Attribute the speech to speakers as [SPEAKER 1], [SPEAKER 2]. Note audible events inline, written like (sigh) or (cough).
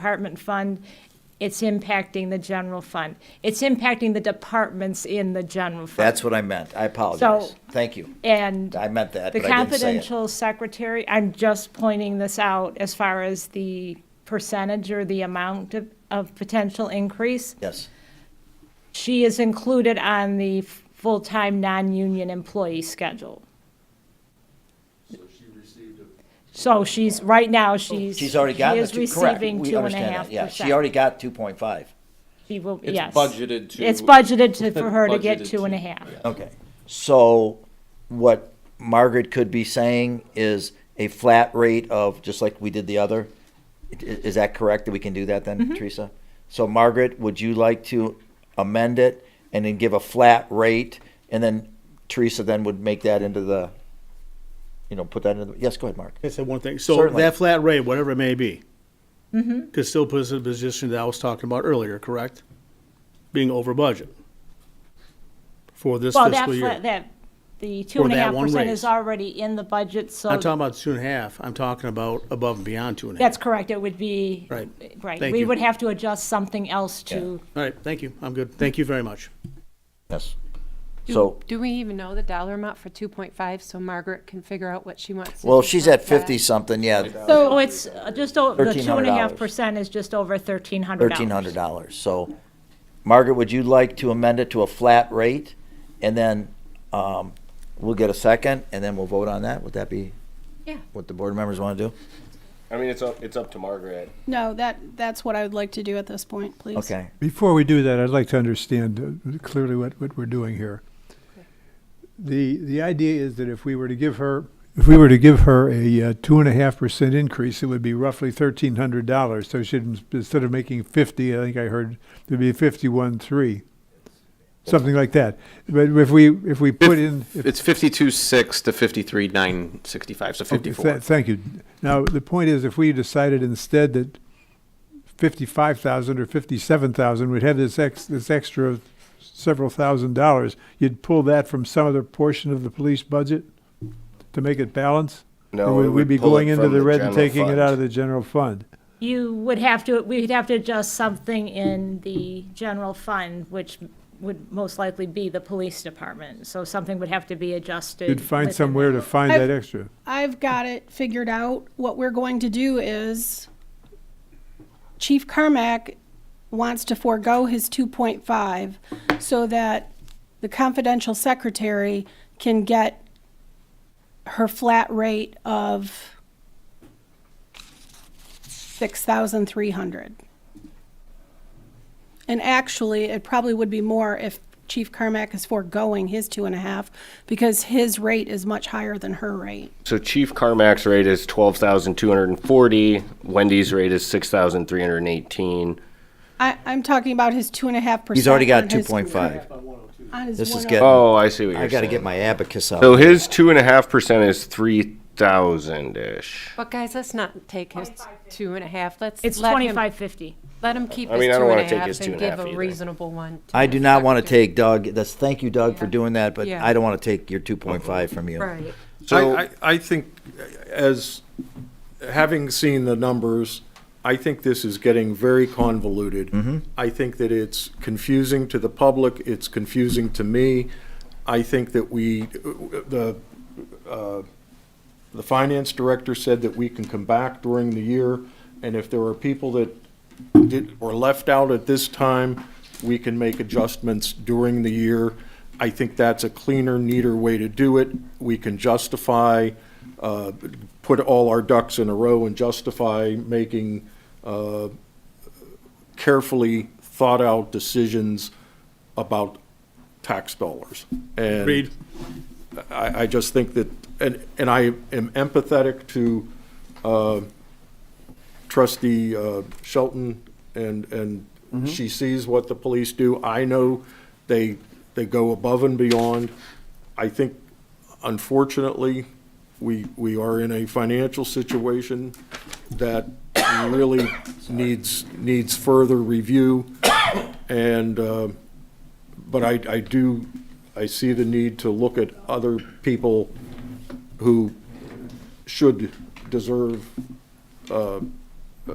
[SPEAKER 1] department fund, it's impacting the general fund. It's impacting the departments in the general fund.
[SPEAKER 2] That's what I meant. I apologize.
[SPEAKER 1] So-
[SPEAKER 2] Thank you.
[SPEAKER 1] And
[SPEAKER 2] I meant that,
[SPEAKER 1] the
[SPEAKER 2] but I didn't say it.
[SPEAKER 1] confidential secretary, I'm just pointing this out as far as the percentage or the amount of, of potential increase.
[SPEAKER 2] Yes,
[SPEAKER 1] She is included on the f- full-time, non-union employee schedule. So she received a. So she's, right now, she's.
[SPEAKER 2] she's already gotten the
[SPEAKER 1] She
[SPEAKER 2] two,
[SPEAKER 1] is
[SPEAKER 2] correct.
[SPEAKER 1] receiving
[SPEAKER 2] We
[SPEAKER 1] two and a
[SPEAKER 2] understand
[SPEAKER 1] half
[SPEAKER 2] that, yeah.
[SPEAKER 1] percent.
[SPEAKER 2] She already got two point five.
[SPEAKER 1] She will,
[SPEAKER 3] It's
[SPEAKER 1] yes.
[SPEAKER 3] budgeted to-
[SPEAKER 1] It's budgeted to, for her
[SPEAKER 3] (laughs)
[SPEAKER 1] to get
[SPEAKER 3] Budgeted
[SPEAKER 1] two and a
[SPEAKER 3] to-
[SPEAKER 1] half.
[SPEAKER 2] Okay. So what Margaret could be saying is a flat rate of, just like we did the other. I- Is that correct that we can do that
[SPEAKER 1] Mm-hmm.
[SPEAKER 2] then, Teresa? So Margaret, would you like to amend it and then give a flat rate? And then Teresa then would make that into the, you know, put that into, the yes, go ahead, Mark.
[SPEAKER 4] I said one thing. So
[SPEAKER 2] Certainly.
[SPEAKER 4] that flat rate, whatever it may be,
[SPEAKER 1] Mm-hmm.
[SPEAKER 4] could still put us in a position that I was talking about earlier, correct? Being over budget for this
[SPEAKER 1] Well, that,
[SPEAKER 4] fiscal year.
[SPEAKER 1] fla- that, the two and a
[SPEAKER 4] that
[SPEAKER 1] half
[SPEAKER 4] one
[SPEAKER 1] percent
[SPEAKER 4] raise.
[SPEAKER 1] is already in the budget, so.
[SPEAKER 4] I'm talking about two and a half. I'm talking about above and beyond two and a half.
[SPEAKER 1] That's correct, it would be.
[SPEAKER 4] Right.
[SPEAKER 1] Right,
[SPEAKER 4] Thank
[SPEAKER 1] we
[SPEAKER 4] you.
[SPEAKER 1] would have to adjust something else to,
[SPEAKER 4] All right, thank you. I'm good. Thank you very much.
[SPEAKER 2] Yes.
[SPEAKER 5] Do-
[SPEAKER 2] So,
[SPEAKER 5] Do we even know the dollar amount for two point five, so Margaret can figure out what she wants? to
[SPEAKER 2] well,
[SPEAKER 5] do
[SPEAKER 2] she's
[SPEAKER 5] for
[SPEAKER 2] at
[SPEAKER 5] that?
[SPEAKER 2] fifty something, yeah,
[SPEAKER 1] so it's uh, just, o- the two and a half
[SPEAKER 2] $1,300.
[SPEAKER 1] percent is just over thirteen hundred dollars.
[SPEAKER 2] thirteen hundred dollars. So, Margaret, would you like to amend it to a flat rate? And then, um, we'll get a second, and then we'll vote on that. Would that be
[SPEAKER 5] Yeah.
[SPEAKER 2] what the board members want to do?
[SPEAKER 3] I mean, it's up, it's up to Margaret.
[SPEAKER 6] No, that, that's what I would like to do at this point, please.
[SPEAKER 2] Okay,
[SPEAKER 7] Before we do that, I'd like to understand uh, clearly what, what we're doing here. The, the idea is that if we were to give her, if we were to give her a uh, two and a half percent increase, it would be roughly thirteen hundred dollars. So she'd, instead of making fifty, I think I heard, it'd be fifty-one, three. Something like that. But if we, if we put in. if-
[SPEAKER 8] It's fifty-two six to fifty-three nine sixty-five, so
[SPEAKER 7] Okay,
[SPEAKER 8] fifty-four.
[SPEAKER 7] tha- Thank you. Now, the point is, if we decided instead that fifty-five thousand or fifty-seven thousand, we'd have this ex, this extra of several thousand dollars, you'd pull that from some other portion of the police budget to make it balance?
[SPEAKER 3] No,
[SPEAKER 7] Or
[SPEAKER 3] we
[SPEAKER 7] would we
[SPEAKER 3] would
[SPEAKER 7] be
[SPEAKER 3] pull it
[SPEAKER 7] going into
[SPEAKER 3] from
[SPEAKER 7] the
[SPEAKER 3] the
[SPEAKER 7] red and
[SPEAKER 3] general
[SPEAKER 7] taking it
[SPEAKER 3] fund.
[SPEAKER 7] out of the general fund?
[SPEAKER 1] You would have to, we'd have to adjust something in the general fund, which would most likely be the police department, so something would have to be adjusted.
[SPEAKER 7] You'd find
[SPEAKER 1] within
[SPEAKER 7] somewhere to find
[SPEAKER 6] I've-
[SPEAKER 7] that extra.
[SPEAKER 6] I've got it figured out. What we're going to do is Chief Carmack wants to forego his 2.5 so that the confidential secretary can get her flat rate of 6,300. And actually, it probably would be more if Chief Carmack is foregoing his two and a half because his rate is much higher than her rate.
[SPEAKER 3] So Chief Carmack's rate is twelve thousand two hundred and forty. Wendy's rate is six thousand three hundred and eighteen.
[SPEAKER 6] I, I'm talking about his two and a half percent.
[SPEAKER 2] he's already
[SPEAKER 6] on
[SPEAKER 2] got two
[SPEAKER 6] his-
[SPEAKER 2] point five.
[SPEAKER 6] On his
[SPEAKER 2] This is
[SPEAKER 6] one-
[SPEAKER 2] good.
[SPEAKER 3] Oh, I see what you're
[SPEAKER 2] I
[SPEAKER 3] saying.
[SPEAKER 2] gotta get my abacus out.
[SPEAKER 3] So his two and a half percent is three thousand ish.
[SPEAKER 5] But guys, let's not take his two and a half, let's.
[SPEAKER 1] It's
[SPEAKER 5] let him-
[SPEAKER 1] twenty-five fifty.
[SPEAKER 5] Let him keep
[SPEAKER 3] I
[SPEAKER 5] his two
[SPEAKER 3] mean, I don't
[SPEAKER 5] and
[SPEAKER 3] wanna
[SPEAKER 5] a
[SPEAKER 3] take his
[SPEAKER 5] half
[SPEAKER 3] two
[SPEAKER 5] and
[SPEAKER 3] and a
[SPEAKER 5] give
[SPEAKER 3] half
[SPEAKER 5] a
[SPEAKER 3] either.
[SPEAKER 5] reasonable one. to
[SPEAKER 2] I
[SPEAKER 5] the
[SPEAKER 2] do not want to
[SPEAKER 5] secretary.
[SPEAKER 2] take Doug, that's, thank you Doug for doing that, but
[SPEAKER 5] Yeah.
[SPEAKER 2] I don't want to take your two point five from you.
[SPEAKER 5] Right.
[SPEAKER 9] I, I, I think, as, having seen the numbers, I think this is getting very convoluted. I think that it's confusing to the public, it's confusing to me. I think that we, the, uh, the finance director said that we can come back during the year, and if there are people that did, were left out at this time, we can make adjustments during the year. I think that's a cleaner, neater way to do it. We can justify, uh, put all our ducks in a row and justify making uh, carefully thought-out decisions about tax dollars. And
[SPEAKER 4] Agreed.
[SPEAKER 9] I, I just think that, and, and I am empathetic to uh, trustee uh, Shelton, and, and she sees what the police do. I know they, they go above and beyond. I think unfortunately, we, we are in a financial situation that really needs, needs further review. And, uh, but I, I do, I see the need to look at other people who should deserve uh, uh,